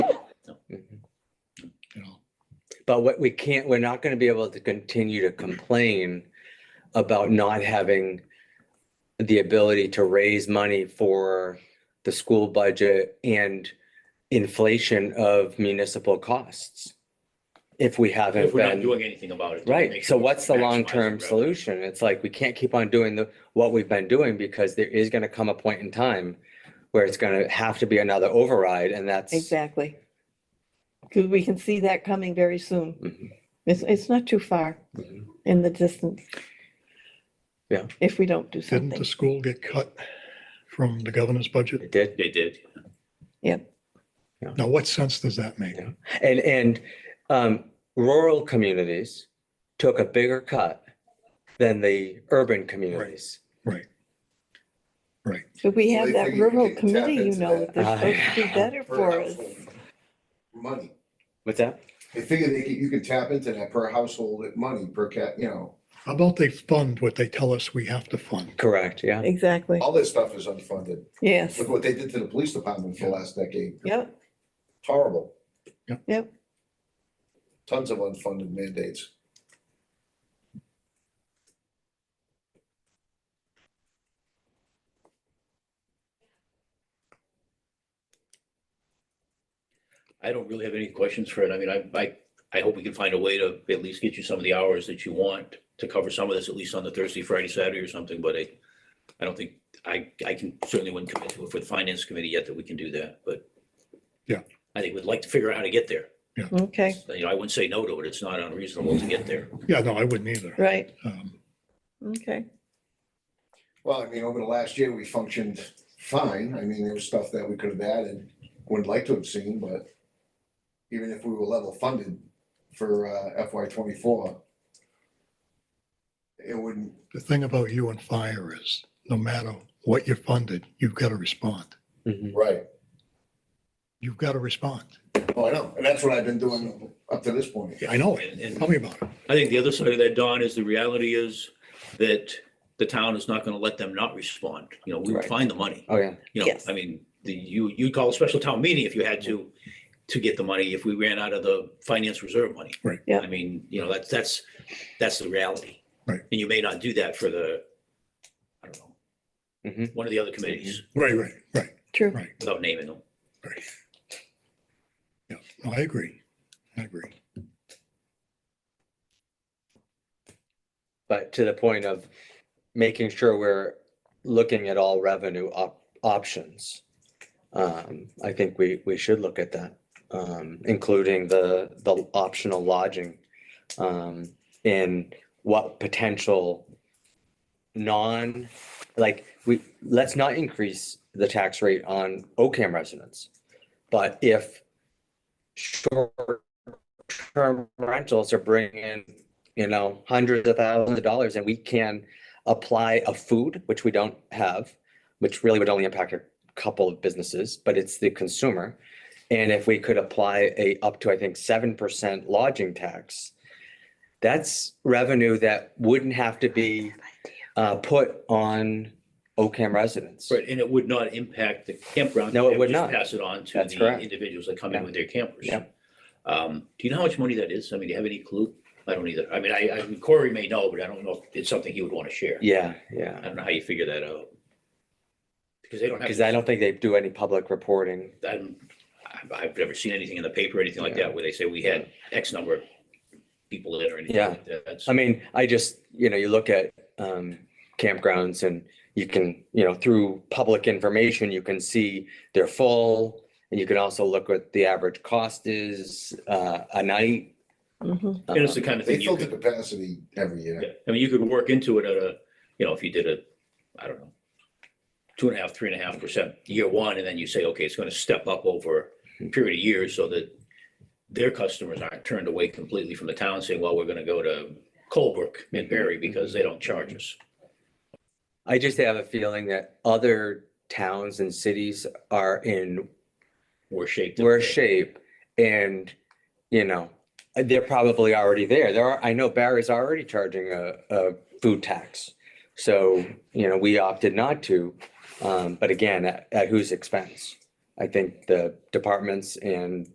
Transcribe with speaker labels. Speaker 1: Mm-hmm.
Speaker 2: But what we can't, we're not going to be able to continue to complain about not having the ability to raise money for the school budget and inflation of municipal costs. If we haven't been.
Speaker 1: If we're not doing anything about it. then it
Speaker 2: Right,
Speaker 1: makes
Speaker 2: so
Speaker 1: it
Speaker 2: what's the
Speaker 1: maximize
Speaker 2: long-term
Speaker 1: revenue.
Speaker 2: solution? It's like, we can't keep on doing the, what we've been doing because there is gonna come a point in time where it's gonna have to be another override and that's.
Speaker 3: Exactly. Because we can see that coming very soon.
Speaker 2: Mhm,
Speaker 3: It's, it's not too far
Speaker 2: mhm.
Speaker 3: in the distance.
Speaker 2: Yeah.
Speaker 3: If we don't do
Speaker 4: Didn't the
Speaker 3: something.
Speaker 4: school get cut from the governor's budget?
Speaker 2: It did,
Speaker 1: They did.
Speaker 4: Now, what sense does that make?
Speaker 2: Yeah. and, and, um, rural communities took a bigger cut than the urban communities.
Speaker 4: Right. Right.
Speaker 3: But we
Speaker 5: Well,
Speaker 3: have
Speaker 5: they
Speaker 3: that
Speaker 5: figure you
Speaker 3: rural
Speaker 5: can tap
Speaker 3: committee, you
Speaker 5: into
Speaker 3: know,
Speaker 5: that.
Speaker 3: they're supposed to do
Speaker 2: Ah.
Speaker 3: better
Speaker 5: per
Speaker 3: for us.
Speaker 5: household Money.
Speaker 2: What's that?
Speaker 5: They figure they could, you could tap into that per household money per cat, you know,
Speaker 4: How about they fund what they tell us we have to fund?
Speaker 2: Correct, yeah.
Speaker 3: Exactly.
Speaker 5: all this stuff is unfunded.
Speaker 3: Yes.
Speaker 5: Look what they did to the police department for the last decade.
Speaker 3: Yep.
Speaker 5: It's Horrible.
Speaker 4: Yep.
Speaker 3: Yep.
Speaker 5: Tons of unfunded mandates.
Speaker 1: I don't really have any questions for it. I mean, I, I, I hope we can find a way to at least get you some of the hours that you want to cover some of this, at least on the Thursday, Friday, Saturday or something, but I, I don't think, I, I can, certainly wouldn't commit to it for the finance committee yet that we can do that, but.
Speaker 4: Yeah.
Speaker 1: I think we'd like to figure out how to get there.
Speaker 3: Okay,
Speaker 1: You know, I wouldn't say no to it. It's not unreasonable to get there.
Speaker 4: Yeah, no, I wouldn't either.
Speaker 3: right.
Speaker 4: Um,
Speaker 3: Okay.
Speaker 5: Well, I mean, over the last year, we functioned fine. I mean, there was stuff that we could have added, would like to have seen, but even if we were level funded for uh, FY twenty-four, it wouldn't,
Speaker 4: The thing about you and fire is, no matter what you're funded, you've got to respond.
Speaker 2: Mhm.
Speaker 5: right.
Speaker 4: You've got to respond.
Speaker 5: Oh, I know, and that's what I've been doing up to this point.
Speaker 4: I know it.
Speaker 1: And, and
Speaker 4: Tell me about it.
Speaker 1: I think the other side of that, Don, is the reality is that the town is not going to let them not respond. You know, we will
Speaker 2: Right.
Speaker 1: find the money.
Speaker 2: Oh, yeah,
Speaker 1: You know,
Speaker 3: Yes.
Speaker 1: I mean, the, you, you'd call a special town meeting if you had to, to get the money, if we ran out of the finance reserve money.
Speaker 4: Right.
Speaker 3: Yeah.
Speaker 1: I mean, you know, that's, that's, that's the reality.
Speaker 4: Right.
Speaker 1: And you may not do that for the, I don't
Speaker 3: Mm-hmm.
Speaker 1: know,
Speaker 2: Mhm.
Speaker 1: one of the other committees,
Speaker 4: Right, right, right.
Speaker 3: True.
Speaker 4: Right.
Speaker 1: without naming them.
Speaker 4: Yeah, no, I agree. I agree.
Speaker 2: but to the point of making sure we're looking at all revenue op- options. Um, I think we, we should look at that, um, including the, the optional lodging. Um, and what potential non, like, we, let's not increase the tax rate on OCAM residents. But if short-term rentals are bringing in you know, hundreds of thousands of dollars and we can apply a food, which we don't have, which really would only impact a couple of businesses, but it's the consumer. And if we could apply a up to, I think, seven percent lodging tax, that's revenue that wouldn't have to be uh, put on OCAM residents.
Speaker 1: Right, and it would not impact the campground.
Speaker 2: No, it
Speaker 1: They
Speaker 2: would
Speaker 1: just
Speaker 2: not.
Speaker 1: Pass it on to
Speaker 2: That's correct.
Speaker 1: the individuals that come in
Speaker 2: Yeah.
Speaker 1: with their campers.
Speaker 2: Yeah.
Speaker 1: Um, do you know how much money that is? I mean, do you have any clue? I don't either. I mean, I, I, Corey may know, but I don't know if it's something he would want to share.
Speaker 2: Yeah,
Speaker 1: I
Speaker 2: yeah.
Speaker 1: don't know how you figure that out. Because they don't have.
Speaker 2: Because I don't think they do any public reporting.
Speaker 1: I'm, I've- I've never seen anything in the paper, or anything like
Speaker 2: Yeah.
Speaker 1: that, where they say we had X number of people in or anything
Speaker 2: Yeah.
Speaker 1: like that. That's-
Speaker 2: I mean, I just, you know, you look at um campgrounds and you can, you know, through public information, you can see they're full. And you can also look what the average cost is uh a night. Um,
Speaker 3: Mhm.
Speaker 1: And it's the kind of
Speaker 5: They
Speaker 1: thing you
Speaker 5: filter
Speaker 1: could,
Speaker 5: capacity every year.
Speaker 1: yeah. I mean, you could work into it at a, you know, if you did a, I don't know, two and a half, three and a half percent year one, and then you say, okay, it's going to step up over a period of years so that their customers aren't turned away completely from the town saying, well, we're going to go to Colebrook and Berry because they don't charge us.
Speaker 2: I just have a feeling that other towns and cities are in
Speaker 1: We're shaped. up
Speaker 2: worse
Speaker 1: there.
Speaker 2: shape and, you know, they're probably already there. There are, I know Barry's already charging a, a food tax. So, you know, we opted not to, um, but again, at, at whose expense? I think the departments and